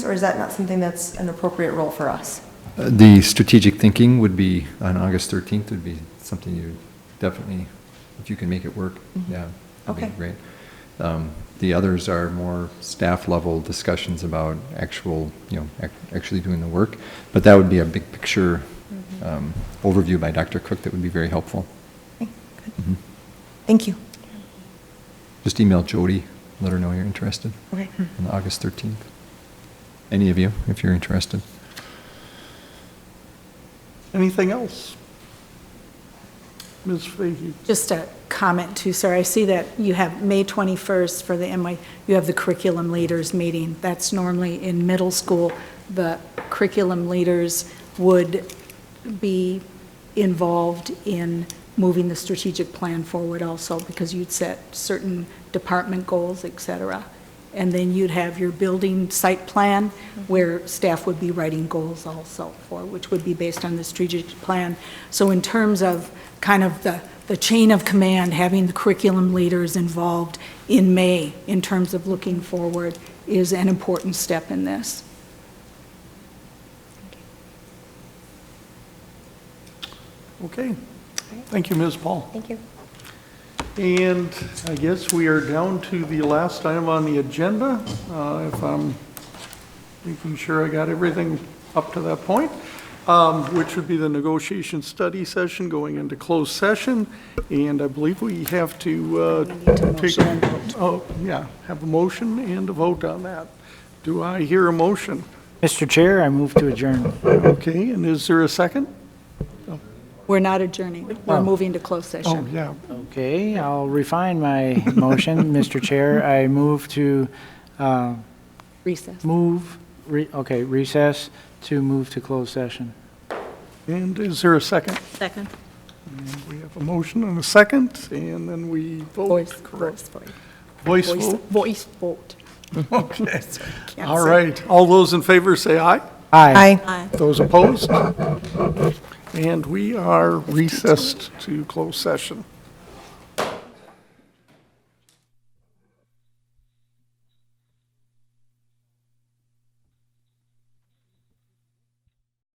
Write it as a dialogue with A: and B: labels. A: or is that not something that's an appropriate role for us?
B: Uh, The strategic thinking would be, on August 13th, would be something you definitely, if you can make it work, yeah. that'd be
A: Mm-hmm. Okay.
B: Great. Um, The others are more staff-level discussions about actual, you know, ac- actually doing the work, but that would be a big picture
A: Mm-hmm.
B: um, overview by Dr. Cook that would be very helpful.
A: Okay, good.
B: Mhm.
A: Thank you.
B: Just email Jody, let her know you're interested
A: Okay.
B: on August 13th. Any of you, if you're interested.
C: Anything else? Ms. Fahey?
D: Just a comment too, sir. I see that you have May 21st for the MY, you have the curriculum leaders meeting. That's normally in middle school. The curriculum leaders would be involved in moving the strategic plan forward also because you'd set certain department goals, et cetera. And then you'd have your building site plan where staff would be writing goals also for, which would be based on the strategic plan. So in terms of kind of the, the chain of command, having the curriculum leaders involved in May in terms of looking forward is an important step in this.
C: Okay. Thank you, Ms. Paul.
A: Thank you.
C: And I guess we are down to the last item on the agenda, uh, if I'm making sure I got everything up to that point, um, which would be the negotiation study session going into closed session. And I believe we have to uh, take, oh, yeah, have a motion and a vote on that. Do I hear a motion?
E: Mr. Chair, I move to adjourn.
C: Okay, and is there a second?
D: We're not adjourning. We're moving to closed
C: Oh,
D: session.
C: yeah,
E: Okay, I'll refine my motion, Mr. Chair. I move to, uh,
D: Recess.
E: move, re- okay, recess to move to closed session.
C: and is there a second?
D: Second.
C: We have a motion and a second, and then we vote,
D: Voice,
C: correct?
D: voice, vote.
C: Voice
D: voice,
C: vote?
D: voice vote.
C: Okay.
D: Can't
C: All
D: say-
C: right. All those in favor say aye.
A: Aye.
C: Those opposed? And we are recessed to closed session.